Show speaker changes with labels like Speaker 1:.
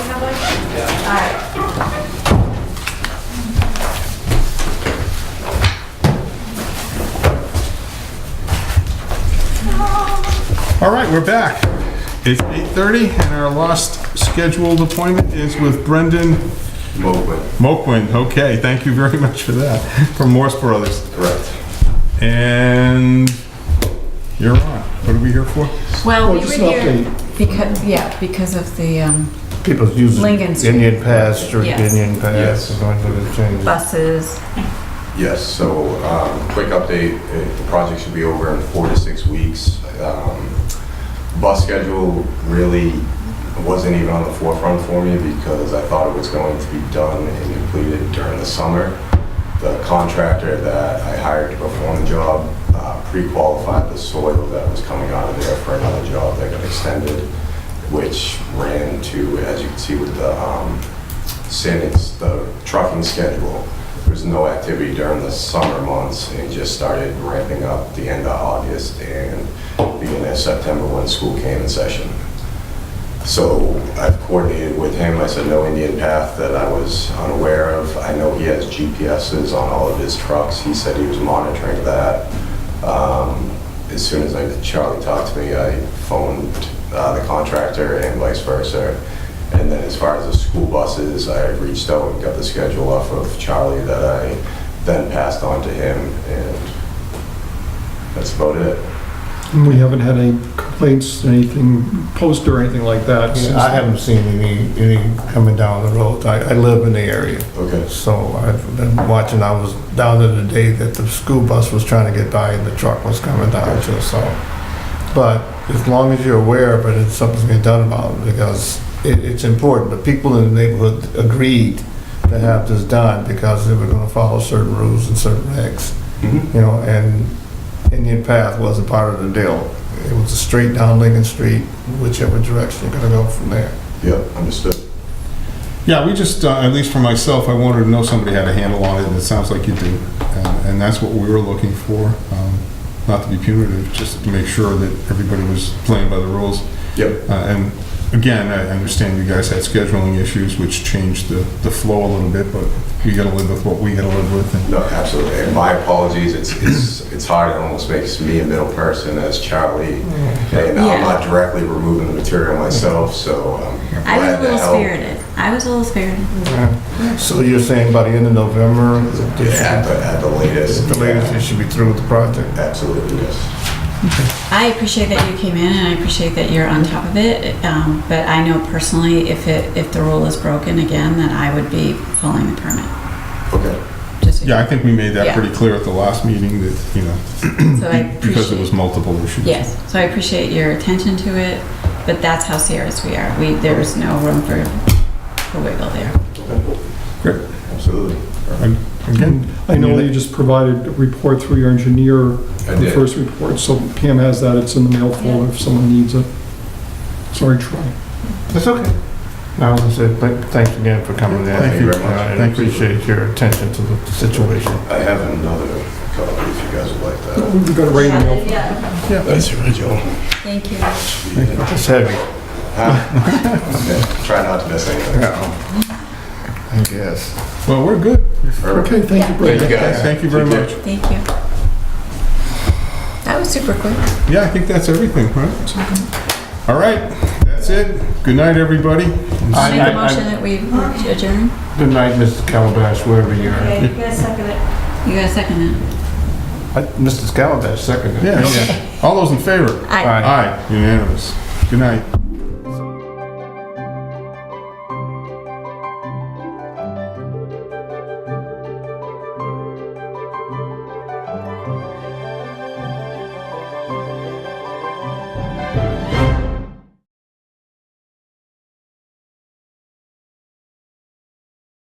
Speaker 1: Alright.
Speaker 2: All right, we're back. It's 8:30 and our last scheduled appointment is with Brendan
Speaker 3: Mobile,
Speaker 2: Moquin. Okay, thank you very much for that, from Morse Brothers.
Speaker 3: correct.
Speaker 2: And you're on. What are we here for?
Speaker 1: Well,
Speaker 4: Well,
Speaker 1: we were
Speaker 4: just
Speaker 1: here
Speaker 4: an
Speaker 1: because, yeah, because of the um,
Speaker 4: People's using
Speaker 1: Lincoln Street.
Speaker 4: Indian Pass or
Speaker 1: Yes.
Speaker 4: Indian
Speaker 3: Yes.
Speaker 4: Pass is going to the change.
Speaker 1: buses.
Speaker 3: Yes, so, um, quick update, uh, the project should be over in four to six weeks. Um, Bus schedule really wasn't even on the forefront for me because I thought it was going to be done and completed during the summer. The contractor that I hired to perform the job uh, pre-qualified the soil that was coming out of there for another job that got extended, which ran to, as you can see with the um, since the trucking schedule. There was no activity during the summer months, and it just started ramping up the end of August and beginning of September when school came in session. So I've coordinated with him, I said no Indian path that I was unaware of. I know he has GPSs on all of his trucks, he said he was monitoring that. Um, As soon as I, Charlie talked to me, I phoned uh, the contractor and vice versa. And then as far as the school buses, I reached out and got the schedule off of Charlie that I then passed on to him, and that's about it.
Speaker 5: And We haven't had any complaints, anything posted or anything like that. since-
Speaker 4: I haven't seen any, any coming down the road. I, I live in the area,
Speaker 3: Okay.
Speaker 4: so I've been watching. I was down there the day that the school bus was trying to get by and the truck was coming down to us, so. But as long as you're aware of it, it's something to be done about it because it, it's important. The people in the neighborhood agreed to have this done because they were gonna follow certain rules and certain regs.
Speaker 3: Mm-hmm.
Speaker 4: you know, and Indian Path wasn't part of the deal. It was a straight down Lincoln Street, whichever direction you're gonna go from there.
Speaker 3: Yep, understood.
Speaker 2: Yeah, we just, uh, at least for myself, I wanted to know somebody had a handle on it, and it sounds like you do. And- And that's what we were looking for, um, not to be punitive, just to make sure that everybody was playing by the rules.
Speaker 3: Yep,
Speaker 2: Uh, And again, I understand you guys had scheduling issues, which changed the the flow a little bit, but you gotta live with what we gotta live with. and-
Speaker 3: no, absolutely. And my apologies, it's, it's, it's hard, it almost makes me a middle person as Charlie.
Speaker 6: Mm.
Speaker 3: And I'm not directly removing the material myself, so I'm
Speaker 6: I was a
Speaker 3: glad to
Speaker 6: little
Speaker 3: help.
Speaker 6: spirited. I was a little spirited.
Speaker 4: So you're saying by the end of November, they should-
Speaker 3: Yeah, but at the latest.
Speaker 4: at the latest, they should be through with the project?
Speaker 3: Absolutely, yes.
Speaker 6: I appreciate that you came in, and I appreciate that you're on top of it. Um, but I know personally, if it if the rule is broken again, then I would be pulling the permit.
Speaker 3: Okay,
Speaker 6: Just so you-
Speaker 2: Yeah, I think we made that
Speaker 6: Yeah.
Speaker 2: pretty clear at the last meeting that, you know,
Speaker 6: so I
Speaker 2: because there was
Speaker 6: appreciate.
Speaker 2: multiple issues.
Speaker 6: Yes, so I appreciate your attention to it. But that's how serious we are. We there is no room for for wiggle there.
Speaker 2: Great.
Speaker 3: absolutely.
Speaker 2: Again,
Speaker 5: I know that you just provided a report through your engineer,
Speaker 3: I
Speaker 5: the
Speaker 3: did.
Speaker 5: first report, so Pam has that, it's in the mail folder if someone needs it. Sorry, Troy.
Speaker 4: That's okay. I was gonna say, thank- thanks again for coming in.
Speaker 2: Thank you.
Speaker 4: All right, I
Speaker 2: Thank you.
Speaker 4: appreciate your attention to the situation.
Speaker 3: I have another copy if you guys would like that.
Speaker 5: We've got it right in the mail.
Speaker 6: Yeah.
Speaker 3: That's original.
Speaker 6: Thank you.
Speaker 4: It's heavy,
Speaker 3: Try not to miss anything.
Speaker 4: I guess.
Speaker 2: well, we're good.
Speaker 3: Perfect.
Speaker 5: Okay, thank you,
Speaker 3: Thank
Speaker 5: Brad.
Speaker 3: you guys.
Speaker 2: Thank you very
Speaker 3: Take care.
Speaker 2: much.
Speaker 6: Thank you. That was super quick.
Speaker 2: Yeah, I think that's everything, right? All right, that's it. Good night, everybody.
Speaker 4: I-
Speaker 6: Make
Speaker 4: I-
Speaker 6: a
Speaker 4: I-
Speaker 6: motion that we adjourn.
Speaker 4: Good night, Mrs. Calabash, wherever you're at.
Speaker 1: Okay, you guys second it.
Speaker 6: You got a second it.
Speaker 4: I- Mrs. Calabash, second.
Speaker 2: Yeah, yeah. All those in favor?
Speaker 6: Aye.
Speaker 4: Aye.
Speaker 2: Aye, unanimous. Good night.